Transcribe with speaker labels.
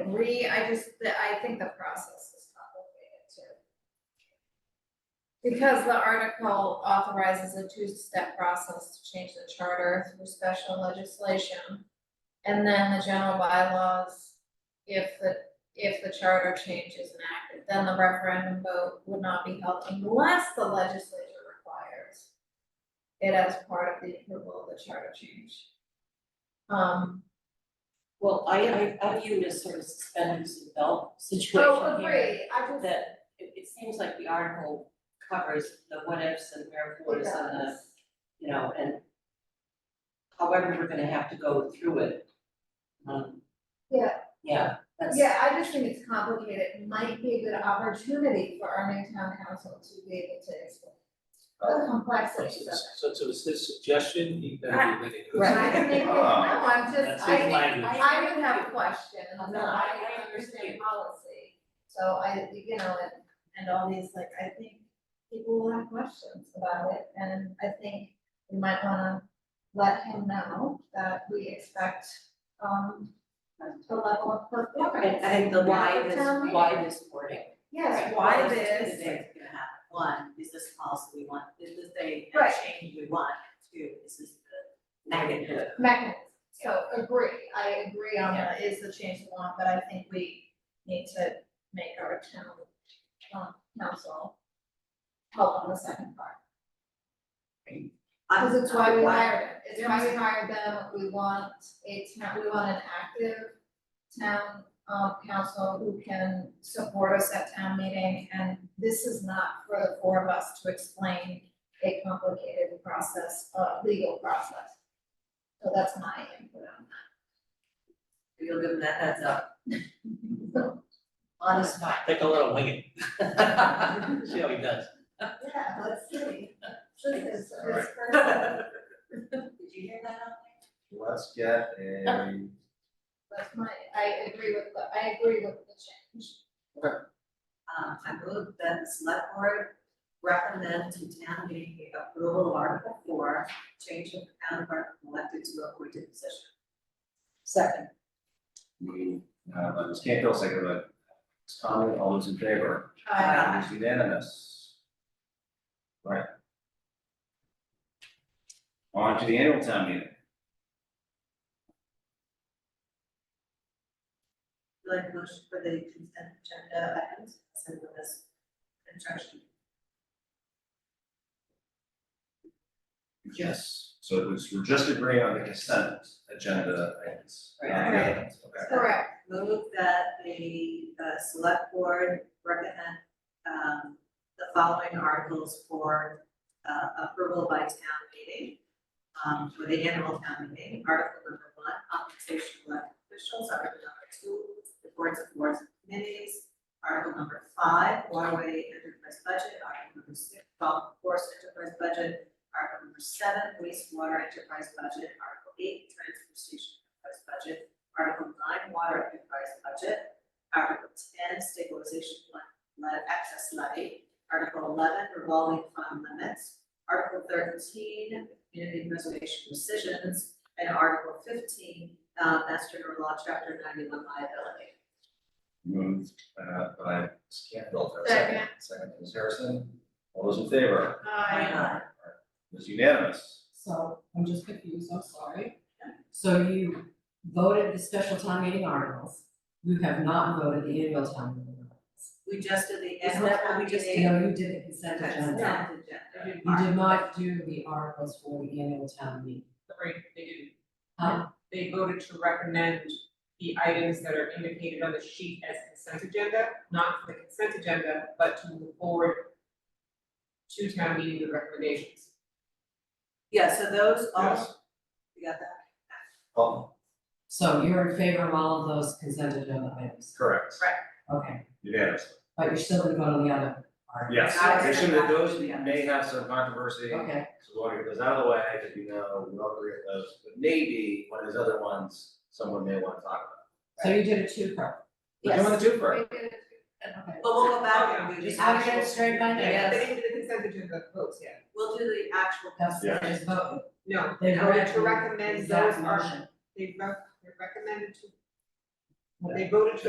Speaker 1: agree, I just, the- I think the process is complicated too. Because the article authorizes a two-step process to change the charter through special legislation. And then the general bylaws, if the, if the charter change is enacted, then the referendum vote would not be held unless the legislature requires it as part of the approval of the charter change. Um,
Speaker 2: Well, I, I, I view it as sort of suspenders and belt situation
Speaker 1: so
Speaker 2: here,
Speaker 1: agree, I just.
Speaker 2: That it, it seems like the article covers the what ifs and wherefores and the, you know, and however we're gonna have to go through it. Um,
Speaker 1: Yeah.
Speaker 2: Yeah, that's,
Speaker 1: Yeah, I just think it's complicated, It might be a good opportunity for our new town council to be able to explain the complexities of it.
Speaker 3: So so it's his suggestion, he better be ready to.
Speaker 2: Right.
Speaker 1: I think, it- no, I'm
Speaker 3: That's
Speaker 1: just, I
Speaker 3: his
Speaker 1: think,
Speaker 3: language.
Speaker 1: I would have questions, and
Speaker 2: No,
Speaker 1: I
Speaker 2: I- I
Speaker 1: don't understand policy, so I, you know, and, and all these, like, I think people will have questions about it, and I think we might wanna let him know that we expect, um, a level of
Speaker 4: And
Speaker 1: performance.
Speaker 4: I think the why
Speaker 1: Yeah,
Speaker 4: this,
Speaker 1: tell me.
Speaker 4: why this wording.
Speaker 1: Yes,
Speaker 4: right?
Speaker 1: why
Speaker 4: Those are two
Speaker 1: this?
Speaker 4: things that are gonna happen. One, is this policy we want, is this a a
Speaker 1: Right.
Speaker 4: change we want? Two, is this the negative?
Speaker 1: mechanism. So agree, I agree on that is the change we want, but I think we need to make our town um, council help on the second part. Because it's why we hired, it. it's why we hired them, we want a town, we want an active town um council who can support us at town meeting, and this is not for the four of us to explain a complicated process, uh legal process. So that's my input
Speaker 4: You'll give them that heads up,
Speaker 1: on
Speaker 4: honest mind.
Speaker 3: Take a little wing it, see how he does.
Speaker 1: that. Yeah, let's see. This is-
Speaker 5: All right.
Speaker 1: this-
Speaker 4: Did you hear that out there?
Speaker 5: Let's get a,
Speaker 1: That's my, I agree with, the I agree with the change.
Speaker 4: Um, I move that the select board recommend to town meeting the approval of Article four, change of town clerk from elected to appointed position.
Speaker 2: second,
Speaker 5: we, uh, by Ms. Canfield, second by Ms. Conley, all those in favor?
Speaker 1: Uh,
Speaker 5: It is unanimous. Right. On to the annual town meeting.
Speaker 4: Would you like a motion for the consent agenda items, send them as instruction.
Speaker 5: Yes. So it was, we're just agreeing on the consent agenda items. not the
Speaker 4: Right.
Speaker 5: others. Okay.
Speaker 1: correct,
Speaker 4: Move that the uh, select board recommend um, the following articles for uh, approval by town meeting. um, For the annual town meeting, article number one, compensation of elected officials, article number two, the boards of boards and committees. Article number five, waterway enterprise budget, article number six, golf course enterprise budget. Article number seven, wastewater enterprise budget, article eight, transfer station enterprise budget. Article nine, water enterprise budget. Article ten, stabilization fund, le- access levy. Article eleven, revolving fund limits. Article thirteen, community preservation decisions. And Article fifteen, uh, Mass General Law, Chapter ninety-one liability.
Speaker 5: Moved, uh, by Ms. Canfield, for a
Speaker 1: Second.
Speaker 5: second, second by Ms. Harrison, all those in favor?
Speaker 1: I,
Speaker 5: It is unanimous.
Speaker 6: So I'm just confused, I'm sorry. So you voted the special town meeting articles, you have not voted the annual town meeting articles.
Speaker 4: We just did the
Speaker 6: Isn't
Speaker 4: annual
Speaker 6: that
Speaker 4: town
Speaker 6: what we just
Speaker 4: meeting.
Speaker 6: No, you did the consent agenda.
Speaker 4: Consent agenda.
Speaker 6: You did not do the articles for the annual town meeting.
Speaker 7: Right, they didn't.
Speaker 6: Huh?
Speaker 7: They voted to recommend the items that are indicated on the sheet as consent agenda, not for the consent agenda, but to move forward to town meeting with recommendations.
Speaker 4: Yeah, so those all,
Speaker 5: Yes.
Speaker 4: you got that?
Speaker 5: Oh,
Speaker 6: So you're in favor of all of those consent agenda items,
Speaker 5: correct.
Speaker 6: okay,
Speaker 5: Unanimous.
Speaker 6: but you're still gonna vote on the other articles?
Speaker 5: Yes,
Speaker 4: I
Speaker 5: they
Speaker 4: was
Speaker 5: should,
Speaker 4: gonna
Speaker 5: those
Speaker 4: ask, yeah.
Speaker 5: may have some controversy, so
Speaker 6: Okay,
Speaker 5: lawyer goes out of the way, because you know, we all agree on those, but maybe one of those other ones, someone may want to talk about.
Speaker 6: so you did a two-part.
Speaker 5: But you want to do first.
Speaker 1: we did it.
Speaker 6: Okay.
Speaker 4: But we'll go back and do the
Speaker 6: Just wanna get it
Speaker 4: actual,
Speaker 6: straight by
Speaker 4: Yeah.
Speaker 6: now.
Speaker 7: They didn't do the consent agenda votes yet.
Speaker 4: we'll do the actual.
Speaker 6: That's,
Speaker 5: Yeah.
Speaker 6: they just voted.
Speaker 7: No,
Speaker 6: They
Speaker 7: they voted to
Speaker 6: recommend-
Speaker 7: recommend
Speaker 6: Exact
Speaker 7: those
Speaker 6: motion.
Speaker 7: are, they rec- they recommended to, they voted to